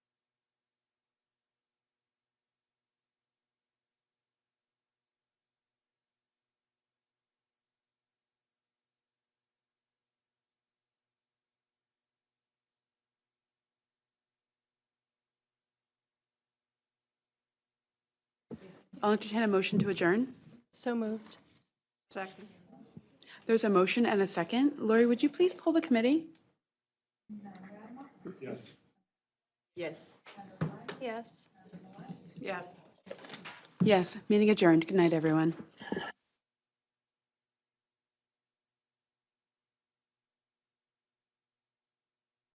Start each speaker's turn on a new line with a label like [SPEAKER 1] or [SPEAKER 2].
[SPEAKER 1] I'll entertain a motion to adjourn.
[SPEAKER 2] So moved.
[SPEAKER 1] Second. There's a motion and a second. Lori, would you please pull the committee?
[SPEAKER 3] Yes.
[SPEAKER 2] Yes.
[SPEAKER 3] Yeah.
[SPEAKER 1] Yes, meeting adjourned. Good night, everyone.